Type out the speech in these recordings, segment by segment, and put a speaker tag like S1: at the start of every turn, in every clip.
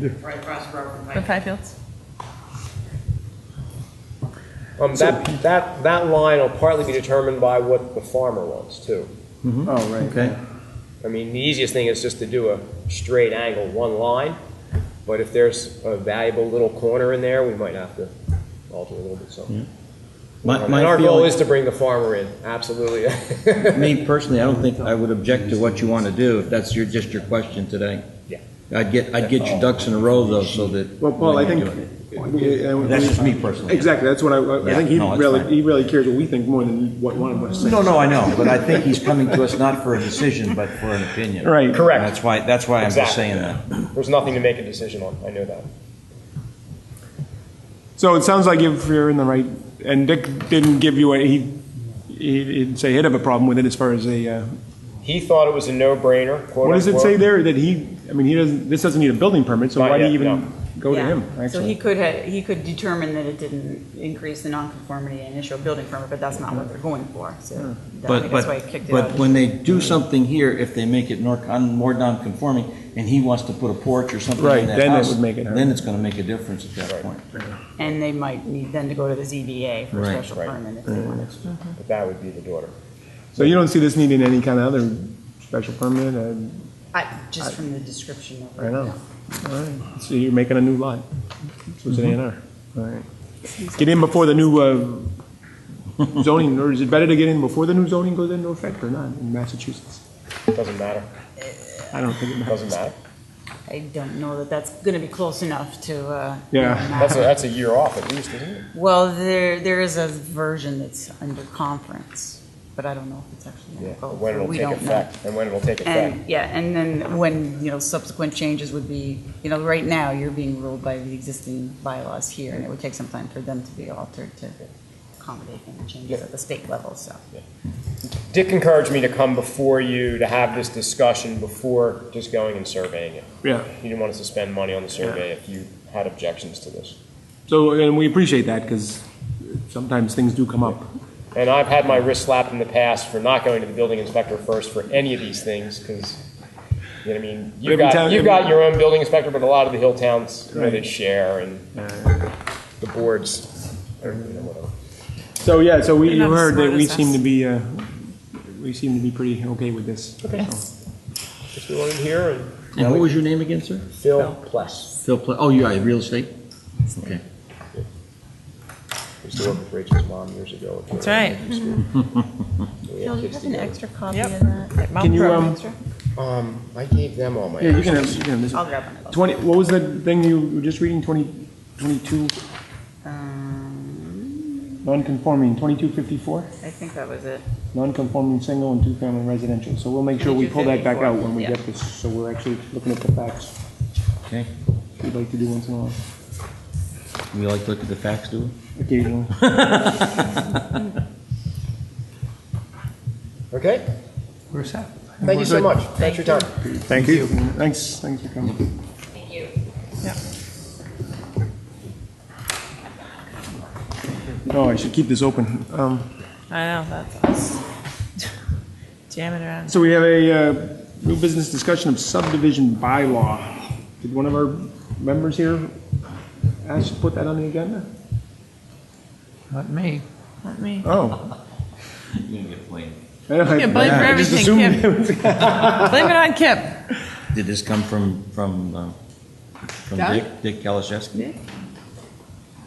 S1: right across the road from
S2: From
S1: Pike.
S2: Fifields?
S3: Um, that, that, that line will partly be determined by what the farmer wants too.
S4: Oh, right.
S5: Okay.
S3: I mean, the easiest thing is just to do a straight angle, one line, but if there's a valuable little corner in there, we might have to alter a little bit something.
S5: My,
S3: And our
S5: my
S3: goal
S5: feeling,
S3: is to bring the farmer in, absolutely.
S5: me personally, I don't think I would object to what you want to do, if that's your, just your question today.
S3: Yeah.
S5: I'd get, I'd get your ducks in a row though, so that.
S4: Well, Paul, I
S5: when
S4: think.
S5: you do it.
S4: That's
S5: That's just me personally.
S4: Exactly, that's what I, I
S5: Yeah,
S4: think he
S5: no, it's
S4: really,
S5: fine.
S4: he really cares what we think more than what one of us thinks.
S5: No, no, I know, but I think he's coming to us not for a decision, but for an opinion.
S4: Right.
S3: Correct.
S5: That's why, that's why I'm just
S3: Exactly.
S5: saying that.
S3: There's nothing to make a decision on, I know that.
S4: So it sounds like if you're in the right, and Dick didn't give you, a he, he didn't say he'd have a problem with it as far as a, uh,
S3: He thought it was a no-brainer, quote
S4: what does it
S3: unquote.
S4: say there that he, I mean, he doesn't, this doesn't need a building permit, so
S3: Not
S4: why do
S3: yet,
S4: you
S3: no.
S4: even go to
S2: Yeah.
S4: him,
S2: So he
S4: actually?
S2: could, ha- he could determine that it didn't increase the nonconformity and issue a building permit, but that's not what they're going for, so that- I
S5: But,
S2: think that's why I
S5: but,
S2: kicked it
S5: but
S2: out.
S5: when they do something here, if they make it more, con- more non-conforming, and he wants to put a porch or something
S4: Right,
S5: in that
S4: then it
S5: house,
S4: would make it hard.
S5: then it's gonna make a difference at that point.
S2: And they might need then to go to the ZBA for a
S5: Right,
S2: special
S3: right.
S2: permit if they wanted.
S3: But that would be the daughter.
S4: So you don't see this needing any kind of other special permit, uh, and,
S2: I, just from the description of it.
S4: I know.
S2: no.
S4: All right, so you're making a new lot, so it's an A and R, all right. Get in before the new, uh, zoning, or is it better to get in before the new zoning goes into effect or not in Massachusetts?
S3: Doesn't matter,
S4: I don't think it matters.
S3: doesn't matter.
S2: I don't know that that's going to be close enough to. uh,
S4: Yeah.
S2: really
S3: That's a,
S2: matter.
S3: that's a year off at least, isn't it?
S2: Well, there, there is a version that's under conference, but I don't know if it's actually
S3: Yeah,
S2: going to go.
S3: when it'll
S2: We
S3: take
S2: don't know.
S3: effect, and when it'll take effect.
S2: And, yeah, and then when, you know, subsequent changes would be, you know, right now, you're being ruled by the existing bylaws here, and it would take some time for them to be altered to accommodate any changes at the state level, so.
S3: Dick encouraged me to come before you to have this discussion before just going and surveying it.
S4: Yeah.
S3: He didn't want us to spend money on the survey if you had objections to this.
S4: So, and we appreciate that, because sometimes things do come up.
S3: And I've had my wrist slapped in the past for not going to the building inspector first for any of these things, because, you know, what I mean, you
S4: Every time-
S3: got, you
S4: every-
S3: got your own building inspector, but a lot of the hill towns, you know, they
S4: Right.
S3: share, and
S4: Uh,
S3: the boards, or, you know, whatever.
S4: So, yeah, so we,
S2: They're
S4: you
S2: not as
S4: heard that
S2: smart
S4: we
S2: as
S4: seem
S2: us.
S4: to be, uh, we seem to be pretty okay with this. So,
S3: Just go in here and
S5: And what was your name again, sir?
S3: Phil Pless,
S5: Phil, Pla- oh, you are, real estate? Okay.
S3: who used to work with Rachel's mom years ago.
S6: That's right.
S2: Phil, do you have an extra copy
S6: Yep.
S2: of that?
S4: Can you, um,
S3: Um, I gave them all my.
S4: yeah, you can have, you can have this.
S2: I'll
S4: one.
S2: grab one of those.
S4: Twenty, what was the thing you were just reading, twenty, twenty-two,
S2: Um,
S4: non-conforming, twenty-two fifty-four?
S2: I think that was it.
S4: Non-conforming single and two-family residential, so we'll make sure we pull that back out when we get this, so we're actually looking at the facts,
S5: Okay,
S4: we'd like to do once in a while,
S5: we like to look at the facts, do we?
S4: occasionally.
S3: Okay,
S4: Where's that?
S3: thank you so much. Thanks for your time.
S4: Thank you. Thanks, thanks for coming.
S1: Thank you.
S4: Oh, I should keep this open. Um,
S6: I know, that's us. Jamming around.
S4: So we have a uh, new business discussion of subdivision bylaw. Did one of our members here ask to put that on the agenda?
S7: Not me.
S6: Let me.
S4: Oh.
S5: You're gonna get blamed.
S4: Yeah,
S6: blame for everything, Blame it on Kip.
S5: Did this come from, from, um, from
S6: Doug?
S5: Dick, Dick Kalaszewski?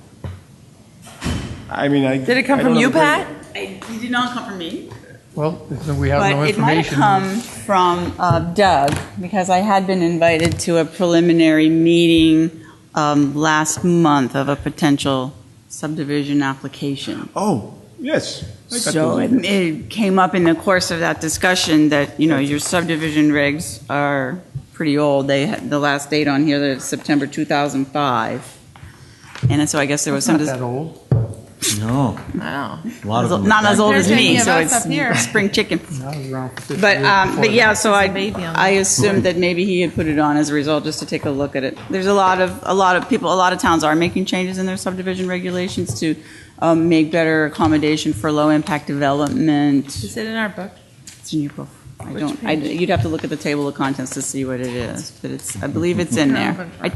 S4: I mean, I.
S6: Did it come
S4: I don't
S6: from
S4: have
S6: you,
S4: a great-
S6: Pat?
S2: It did not come from me.
S7: Well, then we have no
S2: But it might have
S7: information.
S2: come from uh, Doug, because I had been invited to a preliminary meeting um, last month of a potential subdivision application.
S4: Oh, yes. I got
S2: So
S4: those.
S2: it- it came up in the course of that discussion that, you know, your subdivision regs are pretty old. They, had- the last date on here is September 2005. And so I guess there was some,
S7: Not
S2: dis-
S7: that old.
S5: No,
S6: Wow.
S5: a lot of them. were
S2: not as
S5: back
S2: old as
S5: then.
S6: There's any
S2: me,
S6: of
S2: so
S6: us up here.
S2: it's spring chicken.
S7: I was around for 50
S2: But,
S7: years
S2: um,
S7: before
S2: but
S7: that.
S2: yeah, so I,
S6: There's a baby on
S2: I assumed that maybe he had put it on as a result, just to take a look at it. There's a lot of, a lot of people, a lot of towns are making changes in their subdivision regulations to um, make better accommodation for low-impact development.
S6: Is it in our book?
S2: It's in your book. I don't, I, you'd have to look at the table of contents to see what it is, but it's, I believe it's in there. I